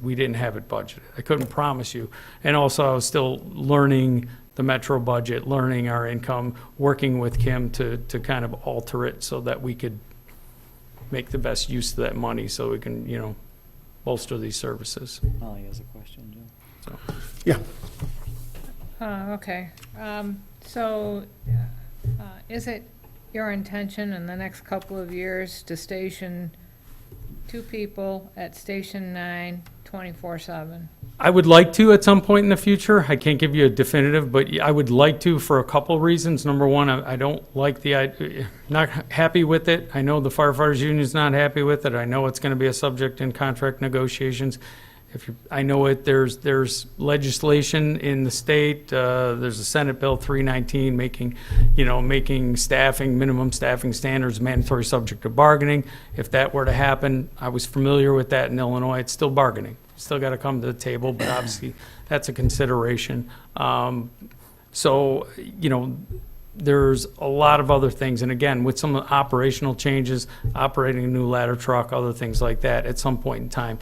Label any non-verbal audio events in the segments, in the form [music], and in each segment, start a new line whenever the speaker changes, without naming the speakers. we didn't have it budgeted. I couldn't promise you. And also, I was still learning the metro budget, learning our income, working with Kim to, to kind of alter it so that we could make the best use of that money so we can, you know, bolster these services.
Molly has a question, Jim.
Uh, okay, um, so, uh, is it your intention in the next couple of years to station two people at Station Nine twenty-four seven?
I would like to at some point in the future. I can't give you a definitive, but I would like to for a couple reasons. Number one, I I don't like the, i- not happy with it. I know the firefighters union's not happy with it. I know it's going to be a subject in contract negotiations. If you, I know it, there's, there's legislation in the state, uh, there's a Senate Bill 319 making, you know, making staffing, minimum staffing standards mandatory subject to bargaining. If that were to happen, I was familiar with that in Illinois, it's still bargaining. Still got to come to the table, but obviously, that's a consideration. Um, So, you know, there's a lot of other things, and again, with some operational changes, operating a new ladder truck, other things like that, at some point in time,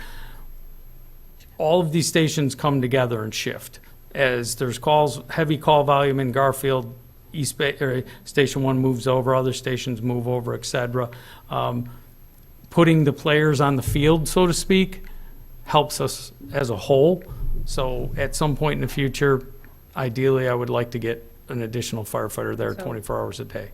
all of these stations come together and shift. As there's calls, heavy call volume in Garfield, East Bay, or Station One moves over, other stations move over, et cetera. Um, Putting the players on the field, so to speak, helps us as a whole. So at some point in the future, ideally, I would like to get an additional firefighter there
So-
twenty-four hours a day.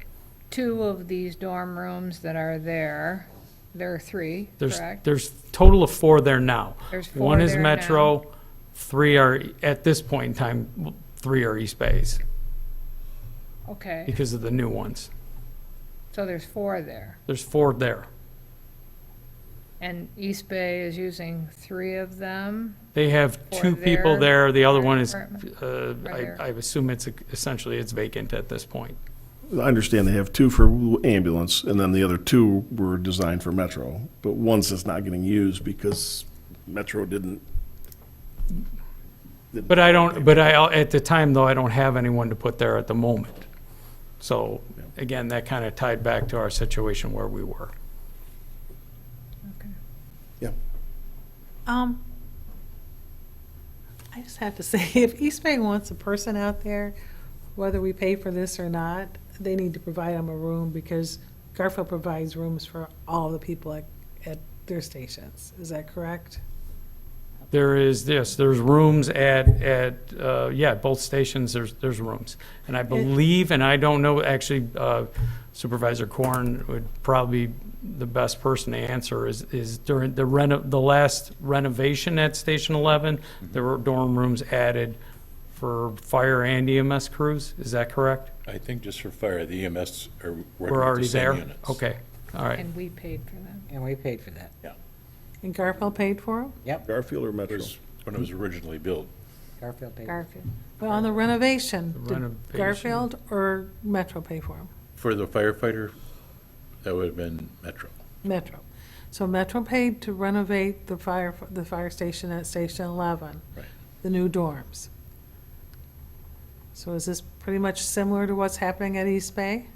Two of these dorm rooms that are there, there are three,
There's,
correct?
there's total of four there now.
There's four
One is
there now.
Metro, three are, at this point in time, three are East Bays
Okay,
because of the new ones.
so there's four there,
There's four there.
and East Bay is using three of them?
They have
Four
two people there,
there.
the other one is,
Apartment.
uh, I,
there.
I assume it's essentially, it's vacant at this point.
I understand they have two for ambulance, and then the other two were designed for Metro, but one's just not getting used because Metro didn't.
But I don't, but I, at the time though, I don't have anyone to put there at the moment. So again, that kind of tied back to our situation where we were.
Um, I just have to [laughs] say, if East Bay wants a person out there, whether we pay for this or not, they need to provide them a room because Garfield provides rooms for all the people at, at their stations. Is that correct?
There is this, there's rooms at, at, uh, yeah, both stations, there's, there's rooms. And I believe, and I don't know, actually uh, Supervisor Corn would probably be the best person to answer, is, is during the reno, the last renovation at Station 11,
Mm-hmm.
there were dorm rooms added for fire and EMS crews, is that correct?
I think just for fire, the EMS are working with
We're
the
already
same
there?
units.
Okay, all right.
And we paid for them.
And we paid for that.
And Garfield paid for them?
Garfield or
It
Metro?
was when it was
Mm-hmm.
originally built.
Garfield paid.
Garfield.
But on the renovation,
The
did
renovation.
Garfield or Metro pay for them?
For the firefighter, that would have been Metro.
Metro. So Metro paid to renovate the fire, the fire station at Station 11.
Right.
The new dorms. So is this pretty much similar to what's happening at East Bay?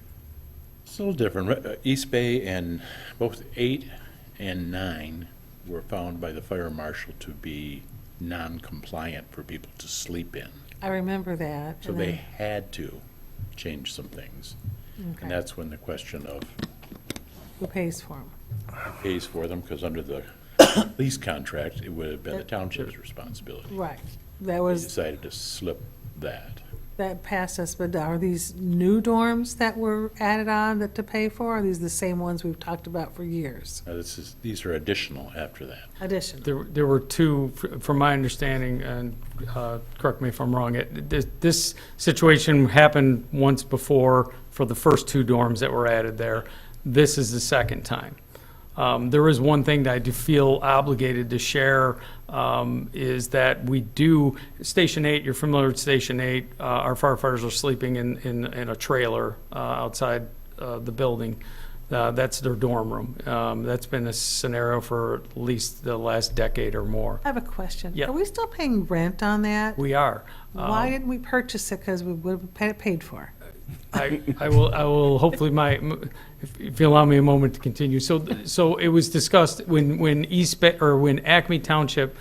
It's a little different. Re- uh, East Bay and both eight and nine were found by the fire marshal to be non-compliant for people to sleep in.
I remember that.
So
and
they
then-
had to change some things.
okay.
And that's when the question of
Who pays for them?
pays for them, because under the [coughs] lease contract, it would have been the township's responsibility.
Right. That
They
was,
decided to slip that.
that passed us, but are these new dorms that were added on that to pay for? Are these the same ones we've talked about for years?
Now, this is, these are additional after that.
Additional.
There, there were two, fr- from my understanding, and uh, correct me if I'm wrong, it- this, this situation happened once before for the first two dorms that were added there. This is the second time. Um, There is one thing that I do feel obligated to share, um, is that we do, Station 8, you're familiar with Station 8, uh, our firefighters are sleeping in, in, in a trailer uh, outside uh, the building. Uh, That's their dorm room. Um, That's been a scenario for at least the last decade or more.
I have a question.
Yeah.
Are we still paying rent on that?
We are.
Why
Um,
didn't we purchase it? Because we would have pa- paid for. it.
I, I will, I will, hopefully my, if if you allow me a moment to continue. So, so it was discussed when, when East Bay, or when Acme Township